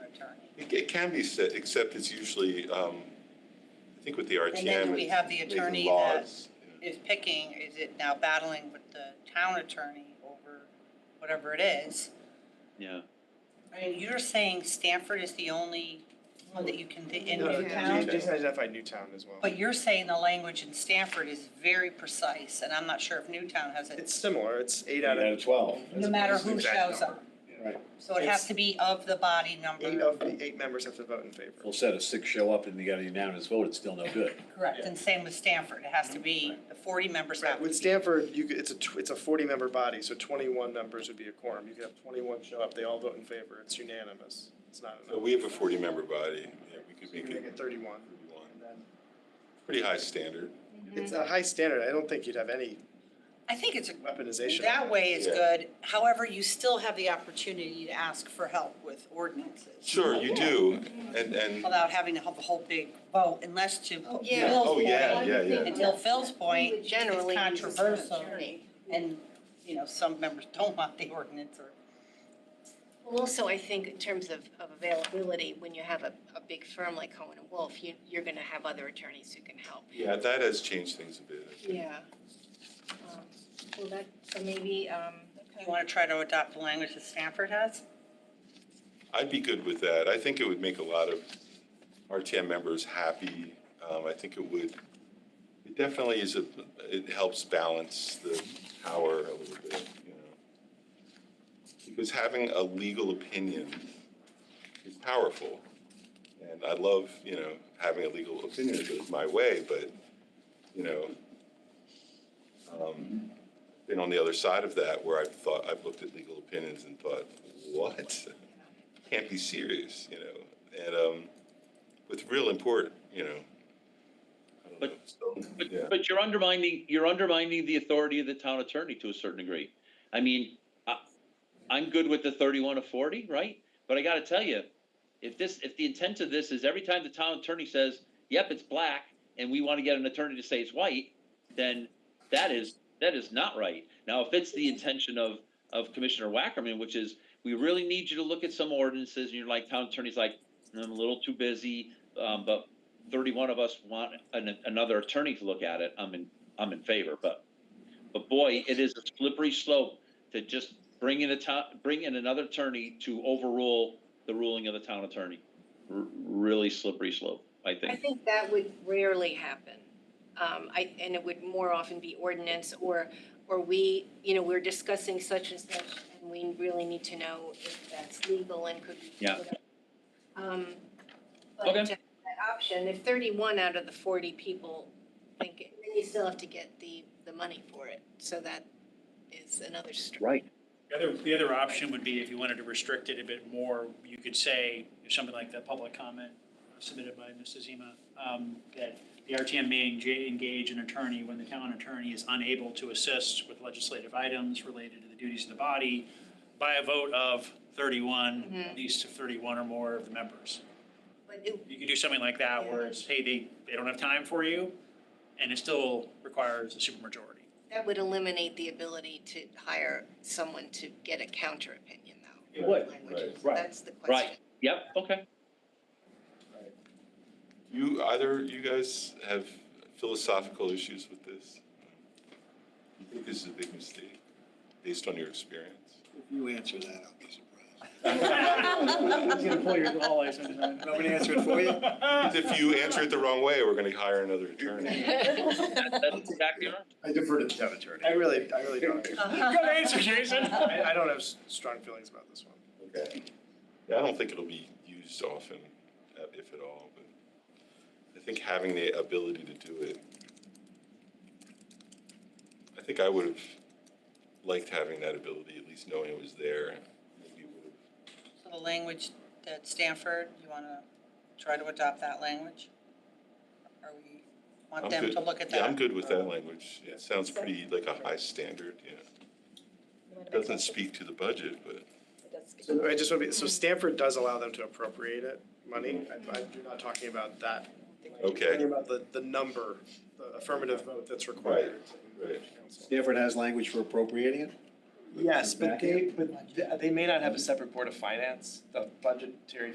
It, it can be set, except it's usually, um, I think with the RTM. And then we it's have the making attorney that laws, you know. is picking, is it now battling with the town attorney over whatever it is? Yeah. I mean, you're saying Stanford is the only one that you can, thi- in No, Newtown? Newtown. Just identified Newtown as well. But you're saying the language in Stanford is very precise, and I'm not sure if Newtown has It's it, similar, it's eight out of, twelve. no matter who Exact shows number. up. Right, So it has to be of the body eight number, of the eight members have to vote in favor. full set of six show up and you got a unanimous vote, it's still no good. correct, and same with Stanford, it has to be, the forty members have Right, to with be. Stanford, you could, it's a, tw- it's a forty-member body, so twenty-one members would be a quorum. You could have twenty-one show up, they all vote in favor, it's unanimous. It's not So enough. Uh, we have a forty-member body, yeah, we could You make can make it it thirty-one. thirty-one, And then- pretty high standard. Mm-hmm. It's a high standard, I don't think you'd have any I think it's, weaponization. that way is Yeah. good, however, you still have the opportunity to ask for help with ordinances Sure, you do, and, and, without having to have a whole big vote, unless to Bill's Yeah. oh, point, yeah, yeah, yeah. until Phil's point, it's Generally, use an controversial, attorney. and, you know, some members don't want the ordinance or Well, also, I think in terms of, of availability, when you have a, a big firm like Cohen and Wolf, you, you're gonna have other attorneys who can help. yeah, that has changed things a bit. I think. Yeah. Um, Well, that, so maybe, um, You want to try to adopt the language that Stanford has? I'd be good with that. I think it would make a lot of RTM members happy. Um, I think it would, it definitely is a, it helps balance the power a little bit, you know. Because having a legal opinion is powerful. And I love, you know, having a legal opinion if it was my way, but, you know, um, been on the other side of that where I've thought, I've looked at legal opinions and thought, what? can't be serious, you know, and um, with real import, you know. I don't But- know, so, But, yeah. but you're undermining, you're undermining the authority of the town attorney to a certain degree. I mean, I, I'm good with the thirty-one to forty, right? But I gotta tell you, if this, if the intent of this is every time the town attorney says, yep, it's black, and we wanna get an attorney to say it's white, then that is, that is not right. Now, if it's the intention of, of Commissioner Wackerman, which is, we really need you to look at some ordinances, and you're like, town attorney's like, I'm a little too busy, um, but thirty-one of us want an, another attorney to look at it, I'm in, I'm in favor, but, but boy, it is a slippery slope to just bring in a town, bring in another attorney to overrule the ruling of the town attorney. R- Really slippery slope, I I think. think that would rarely happen. Um, I, and it would more often be ordinance or, or we, you know, we're discussing such and such, and we really need to know if that's legal and could be. Yeah. Um, but to Okay. have that option, if thirty-one out of the forty people think, it, then you still have to get the, the money for it, so that is another str- Right. The other, the other option would be if you wanted to restrict it a bit more, you could say, something like the public comment submitted by Mr. Zima, um, that the RTM may enga- engage an attorney when the town attorney is unable to assist with legislative items related to the duties of the body by a vote of thirty-one, Mhm. at least of thirty-one or more of the members. But it, You could do something like that where it's, hey, they, they don't have time for you, and it still requires a supermajority. that would eliminate the ability to hire someone to get a counter opinion, though. It would, language. right. That's the question. Right, yep, okay. You, either you guys have philosophical issues with this? You think this is a big mistake, based on your experience? If you answer that, I'll be surprised. He's gonna pull your law license. Nobody answered for you? If you answer it the wrong way, we're gonna hire another attorney. né? That- That's exactly right. I defer to the town attorney. I really, I really don't. Uh-huh. Good answer, Jason. I, I don't have s- strong feelings about this one. Okay. Yeah, I don't think it'll be used often, uh, if at all, but I think having the ability to do it. I think I would have liked having that ability, at least knowing it was there. Maybe would have So the language that Stanford, you want to try to adopt that language? Or we want I'm them good. to look at that? Yeah, I'm good with that language. It sounds pretty like a high standard, yeah. Doesn't speak to the budget, but So I just want to be, so Stanford does allow them to appropriate it, money, I, I, you're not talking about that. Okay. You're talking about the, the number, the affirmative vote that's required. right. Stanford has language for appropriating it? Yes, but they, but they may not have a separate board of finance, the budgetary